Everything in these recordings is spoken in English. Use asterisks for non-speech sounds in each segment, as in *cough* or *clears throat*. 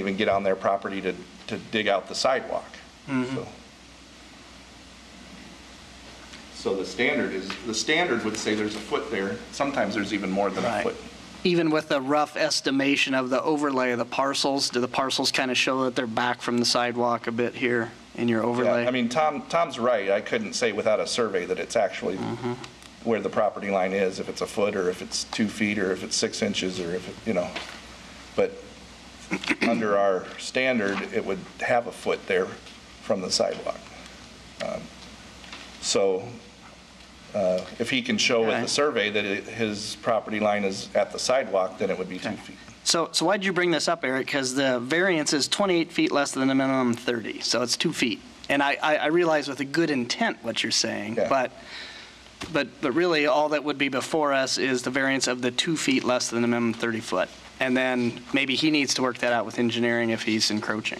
even get on their property to, to dig out the sidewalk. So- So the standard is, the standard would say there's a foot there. Sometimes there's even more than a Right. foot. Even with a rough estimation of the overlay of the parcels, do the parcels kind of show that they're back from the sidewalk a bit here in your Yeah, overlay? I mean, Tom, Tom's right. I couldn't say without a survey that it's actually where the property line is, if it's a foot, or if it's two feet, or if it's six inches, or if, it- you know. But *clears throat* under our standard, it would have a foot there from the sidewalk. Um, So uh, if he can show with Okay. the survey that it- his property line is at the sidewalk, then it would be two feet. So, so why'd you bring this up, Eric? Because the variance is 28 feet less than the minimum 30, so it's two feet. And I, I I realize with a good intent what you're saying, Yeah. but, but, but really, all that would be before us is the variance of the two feet less than the minimum 30 foot. And then maybe he needs to work that out with engineering if he's encroaching.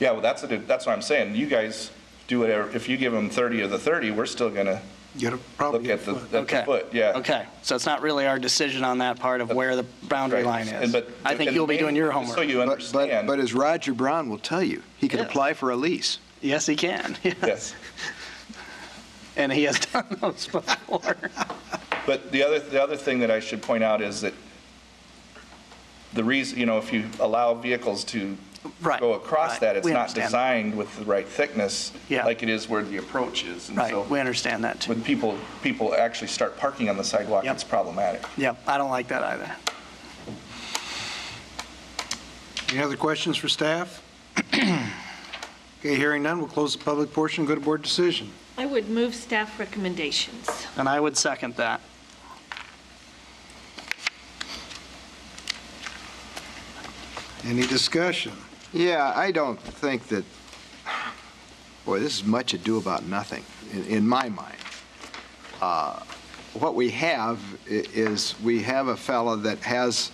Yeah, well, that's, a- that's what I'm saying. You guys do whatever, if you give him 30 of the 30, we're still gonna Get a look probably a at the, foot. at the Okay. foot, yeah. Okay, so it's not really our decision on that part of where the boundary Right. line And is. but- I think and you'll be doing your just So homework. you But- But, understand. but as Roger Brown will tell you, he can Yeah. apply for a lease. Yes, he can, *laughs* Yes. and he has done *laughs* those before. But the other, the other thing that I should point out is that the reason, you know, if you allow vehicles to Right. go across right. that, it's We not understand. designed with the right thickness, Yeah. like it is where the approach is. And Right, we *laughs* so understand that too. when people, people actually start parking on the sidewalk, Yep. it's problematic. Yep, I don't like that either. Any other questions for *clears throat* staff? Okay, hearing none, we'll close the public portion, go to board decision. I would move staff recommendations. And I would second that. Any discussion? Yeah, I don't think that, boy, this is much ado about nothing, in, in my mind. Uh, What we have i- is, we have a fellow that has,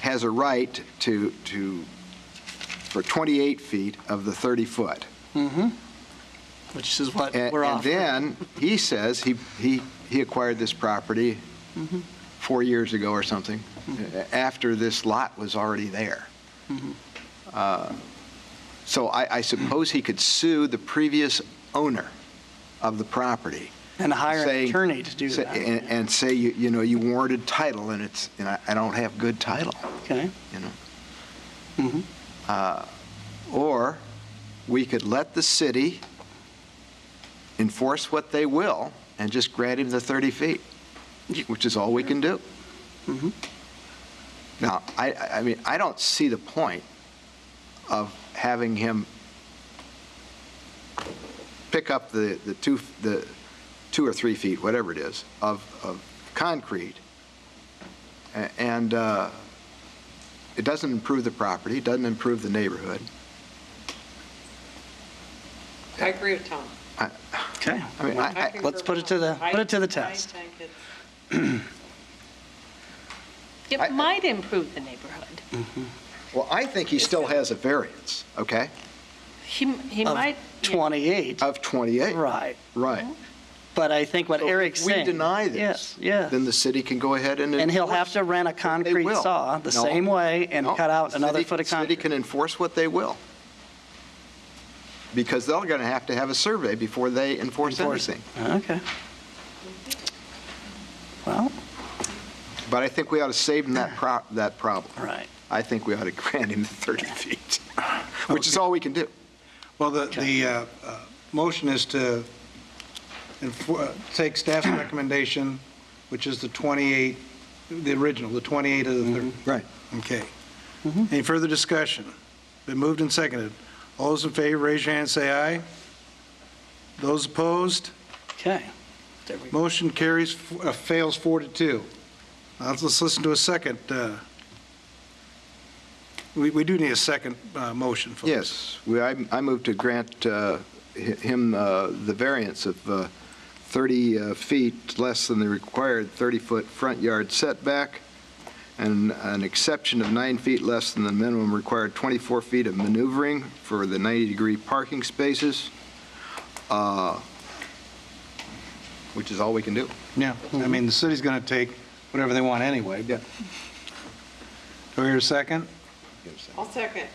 has a right to, to, for 28 feet of the 30-foot. Which is what And we're and off. then, he says, he, he, he acquired this property Mm-hmm. four years ago or something, a- after this lot was already there. Mm-hmm. Uh, So I, I suppose he could sue the previous owner of the property. And hire an say- attorney to do say- And, that. and say, you, you know, you warranted title, and it's, and I, I don't have good title Okay, you know? Mhm. Uh, Or we could let the city enforce what they will and just grant him the 30 feet, which is all we can do. Now, I, I- I mean, I don't see the point of having him pick up the, the two, the two or three feet, whatever it is, of, of concrete a- and, uh, it doesn't improve the property, it doesn't improve the neighborhood. I agree with Tom. okay. I mean, I- I, Let's put it to the- put it to the test. I think it's- I- It might improve the neighborhood. well, I think he still has a variance, okay, He, he Of might. 28, of 28. right. Right. But I think what So if Eric's saying. We deny this. Yes, yes. Then the city can go ahead and. And he'll have enforce to rent a what they concrete will. saw the No, same way and no, cut out the another city- foot of The city concrete. can enforce what they will. Because they're going to have to have a survey before they enforce Enforce it. anything. Okay. Well, But I think we ought to save him that pro, that problem. right. I think we ought to *laughs* grant him the 30 feet, *laughs* which is all we can do. Well, the, the uh, uh, motion is to enfor- uh, *clears throat* take staff's recommendation, which is the 28, the original, the 28 of the 30. Mm-hmm. Right. Mm-hmm. Okay. Any further discussion? Been moved and seconded. All those in favor, raise your hand, say aye. Those opposed, Okay. There we go. motion carries, uh, fails four to two. Now, let's listen to a second. uh, We, we do need a second uh, motion, folks. Yes, we, I I move to grant uh, hi- him uh, the variance of uh, 30 uh, feet less than the required 30-foot front yard setback, and an exception of nine feet less than the minimum required 24 feet of maneuvering for the 90-degree parking spaces, uh, which is all we can do. Yeah, I mean, the city's going to take whatever they want anyway, but. Do I hear a second? Give a second. I'll second.